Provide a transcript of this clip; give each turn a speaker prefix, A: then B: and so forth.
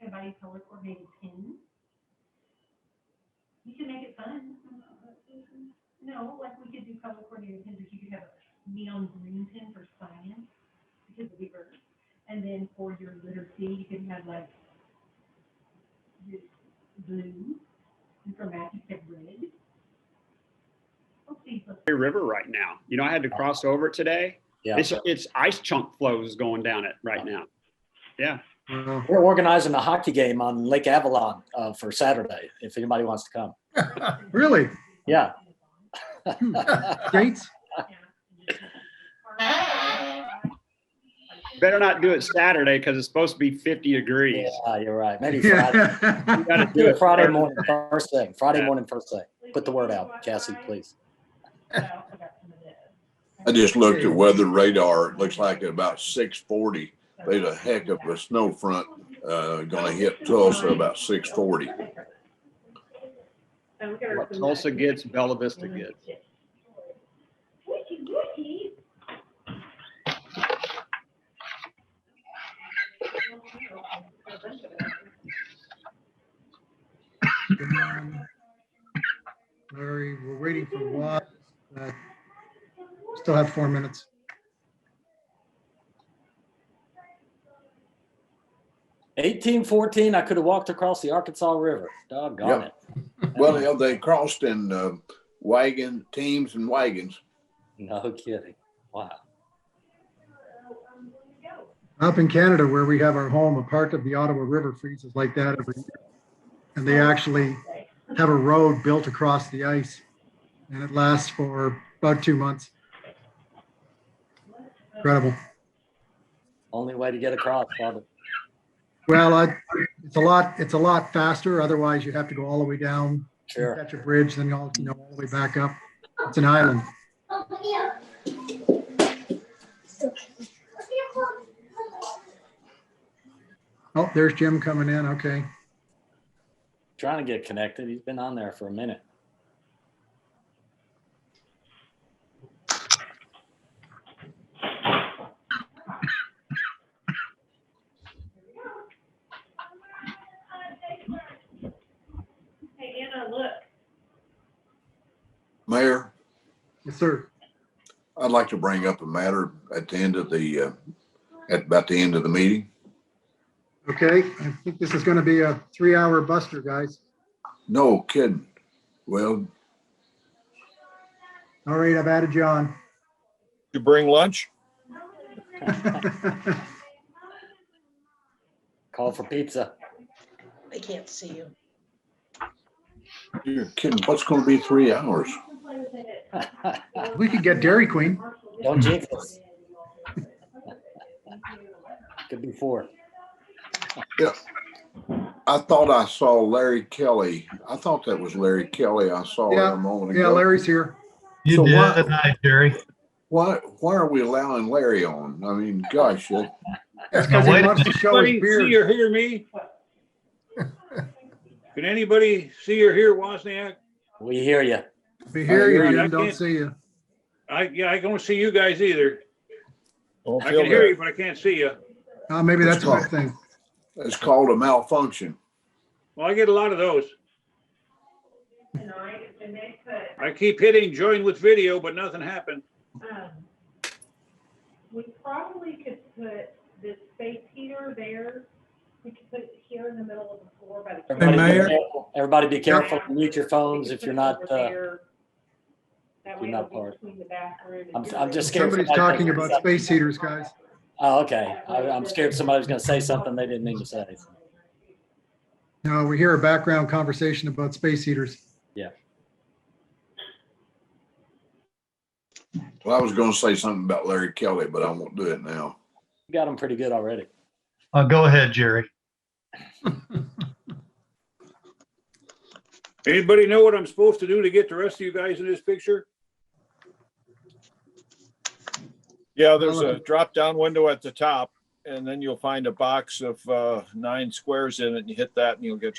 A: could buy you color coordinated pins. You can make it fun. No, like we could do color coordinated pins, if you could have a neon green pin for science, because of the earth. And then for your letter C, you could have like this blue, and for math, you could have red. Let's see, let's
B: Missouri River right now. You know, I had to cross over it today.
C: Yeah,
B: It's, it's ice chunk flows going down it right now.
C: we're organizing a hockey game on Lake Avalon uh, for Saturday. If anybody wants to come,
D: Really?
C: yeah.
D: Dates?
B: Better not do it Saturday because it's supposed to be 50 degrees.
C: yeah, you're right. Maybe Friday.
B: You
D: Yeah.
B: gotta
C: Do it Friday
B: Saturday.
C: morning, first thing. Friday
B: Yeah.
C: morning, first thing. Put the word out, Cassie, please.
E: I just looked at weather radar. It looks like at about six forty, there's a heck of a snow front, uh, gonna hit Tulsa about six forty.
B: What Tulsa gets, Bella Vista gets.
D: Larry, we're waiting for one. Uh, Still have four minutes.
C: Eighteen fourteen, I could have walked across the Arkansas River. Doggone it.
E: Well, yeah, they crossed in, uh, wagon, teams and wagons.
C: No kidding. Wow.
D: Up in Canada where we have our home, a part of the Ottawa River freezes like that every year. And they actually have a road built across the ice. And it lasts for about two months. Incredible.
C: Only way to get across, Father.
D: Well, I- it's a lot, it's a lot faster. Otherwise you'd have to go all the way down
C: Sure.
D: catch a bridge, then all, you know, all the way back up. It's an island. Oh, there's Jim coming in. Okay.
C: Trying to get connected. He's been on there for a minute.
A: Hey, Anna, look.
E: Mayor,
D: Yes, sir.
E: I'd like to bring up a matter at the end of the, uh, at about the end of the meeting.
D: Okay. I think this is going to be a three hour buster, guys.
E: No kidding. Well,
D: All right. I've added you on.
F: You bring lunch?
C: Call for pizza.
G: I can't see you.
E: you're kidding. What's gonna be three hours?
D: We could get Dairy Queen.
C: Don't jinx us. Could be four.
E: I thought I saw Larry Kelly. I thought that was Larry Kelly I saw
D: Yeah,
E: a moment ago.
D: Yeah, Larry's here.
E: So
H: You did,
E: why-
H: and I, Jerry.
E: Why, why are we allowing Larry on? I mean, gosh, that-
D: That's because
H: Now, wait
D: he
H: a
D: wants to show his
F: See
D: beard.
F: or hear me? Can anybody see or hear Wozniak?
C: We hear you.
D: We hear you,
E: I
D: Jim. Don't
F: can't-
D: see you.
F: I, yeah, I don't see you guys either.
H: Don't
F: I
H: feel
F: can hear
H: bad.
F: you, but I can't see you.
D: Uh, maybe that's a good thing.
E: that's called a malfunction.
F: Well, I get a lot of those.
A: Tonight, and they put,
F: I keep hitting join with video, but nothing happened.
A: um, we probably could put this space here, there, we could put it here in the middle of the floor by the.
C: Everybody be
D: Mayor?
C: careful- Everybody be careful. Mute your phones if you're not, uh,
A: That
C: you're
A: way
C: not
A: it'll be
C: part.
A: between the bathroom. and
C: I'm-
A: your
C: I'm
A: room.
C: just scared.
D: Somebody's talking about space heaters, guys.
C: oh, okay. I, I'm scared somebody's gonna say something they didn't mean to say.
D: No, we hear a background conversation about space heaters.
E: Well, I was gonna say something about Larry Kelly, but I won't do it now.
C: You got them pretty good already.
H: Uh, go ahead, Jerry.
F: Anybody know what I'm supposed to do to get the rest of you guys in this picture?
H: Yeah, there's a drop-down window at the top, and then you'll find a box of, uh, nine squares in it, and you hit that, and you'll get